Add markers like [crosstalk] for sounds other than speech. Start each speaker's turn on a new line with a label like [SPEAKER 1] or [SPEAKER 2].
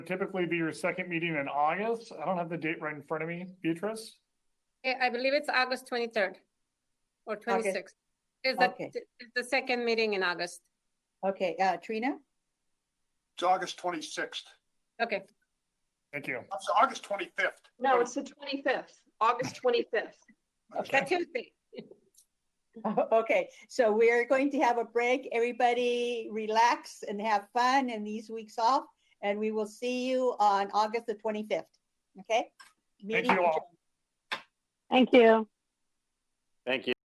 [SPEAKER 1] typically be your second meeting in August. I don't have the date right in front of me, Beatrice.
[SPEAKER 2] Eh, I believe it's August twenty-third or twenty-sixth. Is the,
[SPEAKER 3] Okay.
[SPEAKER 2] is the second meeting in August?
[SPEAKER 3] Okay, uh, Trina? [laughs]
[SPEAKER 4] It's August twenty-sixth.
[SPEAKER 2] Okay,
[SPEAKER 1] Thank you.
[SPEAKER 4] It's August twenty-fifth.
[SPEAKER 5] No, it's the twenty-fifth, August twenty-fifth.
[SPEAKER 3] Okay.
[SPEAKER 2] Tuesday.
[SPEAKER 3] Okay, so we're going to have a break. Everybody relax and have fun in these weeks off. And we will see you on August the twenty-fifth, okay?
[SPEAKER 1] Thank
[SPEAKER 3] Meeting
[SPEAKER 1] you all.
[SPEAKER 3] adjourned.
[SPEAKER 6] Thank you.